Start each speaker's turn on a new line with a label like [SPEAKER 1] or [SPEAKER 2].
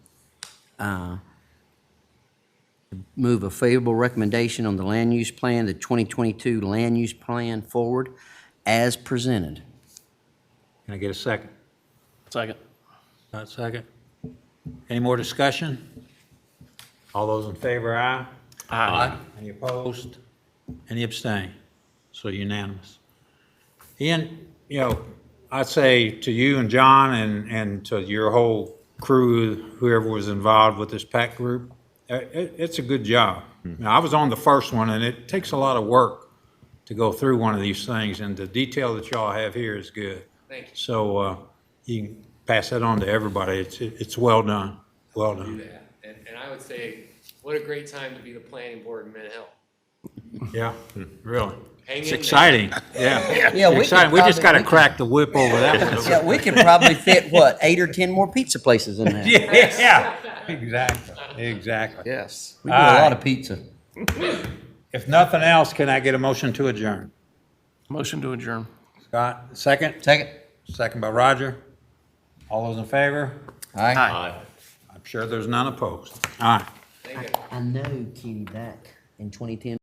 [SPEAKER 1] uh, move a favorable recommendation on the land use plan, the 2022 land use plan forward as presented.
[SPEAKER 2] Can I get a second?
[SPEAKER 3] Second.
[SPEAKER 2] Not second. Any more discussion? All those in favor, aye? Aye. Any opposed? Any abstain? So unanimous. Ian, you know, I'd say to you and John and, and to your whole crew, whoever was involved with this PAC group, uh, it, it's a good job. Now, I was on the first one, and it takes a lot of work to go through one of these things, and the detail that y'all have here is good. Thank you. So, uh, you can pass that on to everybody. It's, it's well done, well
[SPEAKER 4] do
[SPEAKER 2] done.
[SPEAKER 4] that. And, and I would say, what a great time to be the planning board in Mid Hill.
[SPEAKER 2] Yeah, really. Hmm.
[SPEAKER 4] Hang in
[SPEAKER 2] It's
[SPEAKER 4] there.
[SPEAKER 2] exciting, yeah.
[SPEAKER 1] Yeah, we could
[SPEAKER 2] Exciting. We just
[SPEAKER 1] probably-
[SPEAKER 2] gotta crack the whip over that one.
[SPEAKER 1] Yeah, we could probably fit, what, eight or 10 more pizza places in there?
[SPEAKER 2] Yeah, exactly, exactly.
[SPEAKER 1] Yes. We do a lot of pizza.
[SPEAKER 2] If nothing else, can I get a motion to adjourn?
[SPEAKER 3] Motion to adjourn.
[SPEAKER 2] Scott, second?
[SPEAKER 1] Second?
[SPEAKER 2] Second by Roger. All those in favor?
[SPEAKER 1] Aye.
[SPEAKER 2] I'm sure there's none opposed. Aye.
[SPEAKER 4] Thank you.
[SPEAKER 1] I know Kenny back in 2010.